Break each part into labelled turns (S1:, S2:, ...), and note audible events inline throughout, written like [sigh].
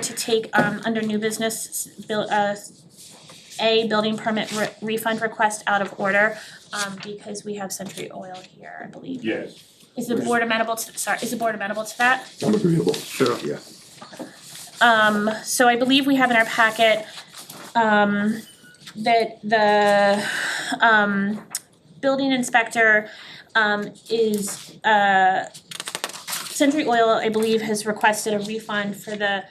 S1: to take um under new business, s- bill uh a building permit re- refund request out of order um because we have Century Oil here, I believe.
S2: Yes.
S1: Is the board amenable to, sorry, is the board amenable to that?
S3: I'm agreeable.
S2: Sure.
S3: Yeah.
S1: Um, so I believe we have in our packet, um, that the, um, building inspector, um, is, uh, Century Oil, I believe, has requested a refund for the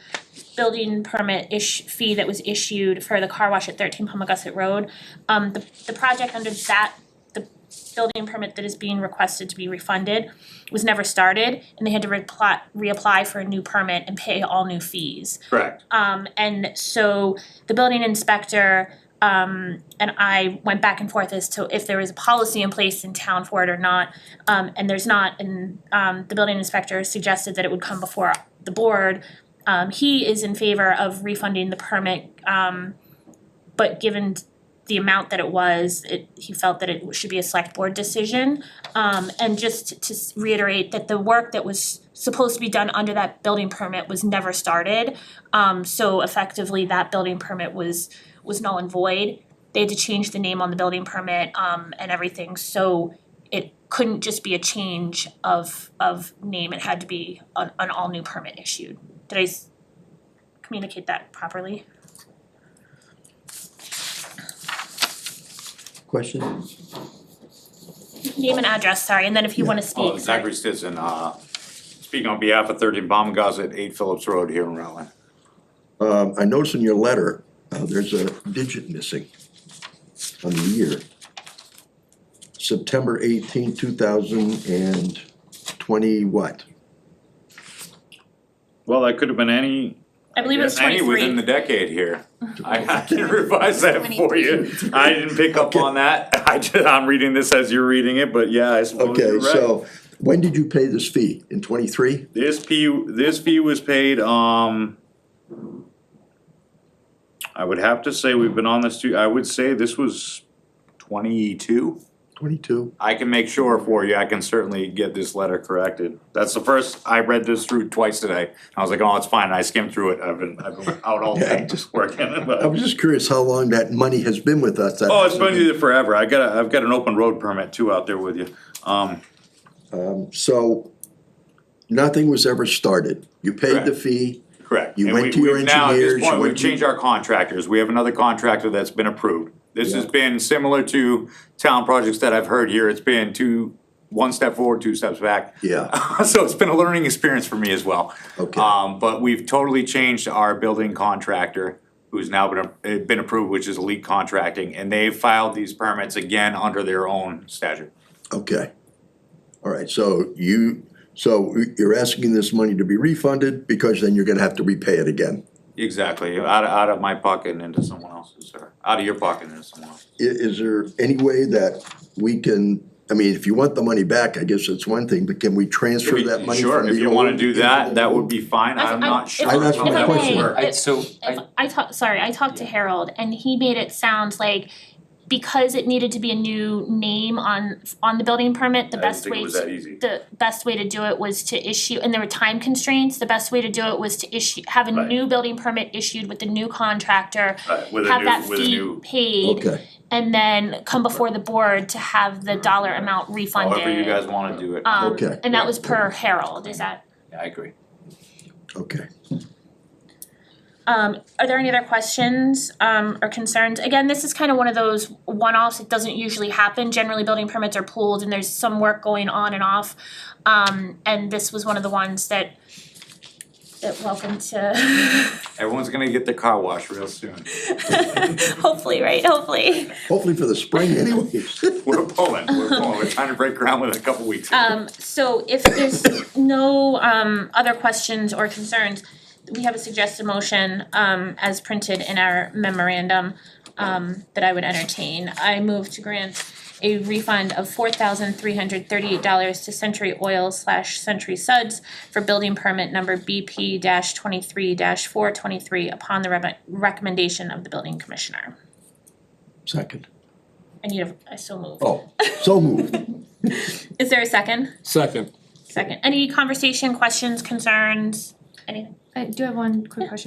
S1: building permit ish, fee that was issued for the car wash at thirteen Palmagussit Road. Um, the, the project under that, the building permit that is being requested to be refunded was never started and they had to reply, reapply for a new permit and pay all new fees.
S2: Correct.
S1: Um, and so the building inspector, um, and I went back and forth as to if there was a policy in place in town for it or not. Um, and there's not, and, um, the building inspector suggested that it would come before the board. Um, he is in favor of refunding the permit, um, but given the amount that it was, it, he felt that it should be a select board decision. Um, and just to s- reiterate that the work that was supposed to be done under that building permit was never started. Um, so effectively, that building permit was, was null and void. They had to change the name on the building permit, um, and everything, so it couldn't just be a change of, of name, it had to be an, an all-new permit issued. Did I s- communicate that properly?
S3: Question?
S1: Name and address, sorry, and then if you wanna
S2: Oh,
S1: speak, sorry.
S2: Zachary Stinson, uh, speaking on behalf of thirteen Palmagussit, eight Phillips Road here in Rutland.
S3: Um, I noticed in your letter, uh, there's a digit missing on the year. September 18, thousand and twenty what?
S2: Well, that could have been any.
S1: I believe it was
S2: Any within the
S1: twenty-three,
S2: decade [laughs] here. I I can revise that for you. I didn't pick up on that. [laughs] I just, I'm reading this as you're reading it, but yeah, I suppose Oh, you're
S3: Okay,
S2: right.
S3: so when did you pay this fee? In twenty-three?
S2: This fee, this fee was paid, um. I would have to say we've been on this, too- I would say this was twenty-two.
S3: Twenty-two?
S2: I can make sure for you, I can certainly get this letter corrected. That's the first, I read this through twice today, I was like, oh, it's fine, and I skimmed through it, I've been, I've been out all
S3: Yeah, I
S2: day just working, but.
S3: I was just curious how long that money has been with us. That
S2: Oh, it's been
S3: hasn't
S2: here forever, I got a, I've got an open road permit too out there with you, um,
S3: been- So, nothing was ever started. You paid the
S2: Correct.
S3: fee.
S2: correct.
S3: You
S2: And
S3: went
S2: we-
S3: to your
S2: we've now, at this
S3: engineers, you
S2: point,
S3: went
S2: We've
S3: to-
S2: changed our contractors, we have another contractor that's been approved. This has
S3: Yeah.
S2: been similar to town projects that I've heard here, it's been two, one step forward, two steps back.
S3: Yeah,
S2: [laughs] so it's been a learning experience for me as well.
S3: Okay.
S2: Um, but we've totally changed our building contractor, who's now been, eh, been approved, which is Elite Contracting, and they filed these permits again under their own statute.
S3: okay. All right, so you, so you're asking this money to be refunded because then you're gonna have to repay it again.
S2: Exactly, out of, out of my pocket and into someone else's, or out of your pocket and into someone else's.
S3: I- is there any way that we can, I mean, if you want the money back, I guess it's one thing, but can we transfer that money
S2: Sure,
S3: from
S2: if
S3: the
S2: you wanna
S3: old
S2: do
S3: into
S2: that,
S3: the
S2: that would
S3: new?
S2: be fine,
S1: I-
S2: I'm
S1: I-
S2: not
S1: if-
S2: sure
S3: I- that's
S2: how
S3: my
S2: that would
S3: question.
S2: work.
S4: I, so
S1: If
S4: I,
S1: I talked, sorry, I talked to Harold and he made it sound like because it needed to be a new name on on the building permit, the
S2: I didn't
S1: best
S2: think it
S1: way
S2: was
S1: to-
S2: that easy.
S1: the best way to do it was to issue, and there were time constraints, the best way to do it was to issue, have a
S2: Right.
S1: new building permit issued with the new contractor,
S2: Right, with a
S1: have
S2: new-
S1: that
S2: with a
S1: fee
S2: new-
S1: paid,
S3: Okay,
S1: and then come before the board to have the dollar amount refunded.
S2: However you guys wanna do it.
S1: Um,
S3: Okay.
S1: and that was per Harold, is that,
S4: I agree.
S3: okay.
S1: Um, are there any other questions, um, or concerns? Again, this is kind of one of those one-offs, it doesn't usually happen, generally building permits are pooled and there's some work going on and off. Um, and this was one of the ones that, that welcome to, [laughs]
S2: Everyone's gonna get their car washed real soon. [laughs]
S1: hopefully, right, hopefully.
S3: Hopefully for
S2: [laughs]
S3: the spring anyways.
S2: We're pulling, we're pulling, we're trying to break ground within a couple weeks.
S1: Um, so if there's no, um, other questions or concerns, we have a suggested motion, um, as printed in our memorandum, um, that I would entertain. I move to grant a refund of four thousand three hundred thirty-eight dollars to Century Oil slash Century Suds for building permit number BP twenty-three four twenty-three upon the re- recommendation of the building commissioner.
S3: Second.
S1: I need a, I so move.
S3: Oh, so moved.
S1: Is there a second?
S5: Second.
S1: Second. Any conversation, questions, concerns, anything?
S6: I Uh, do have one quick question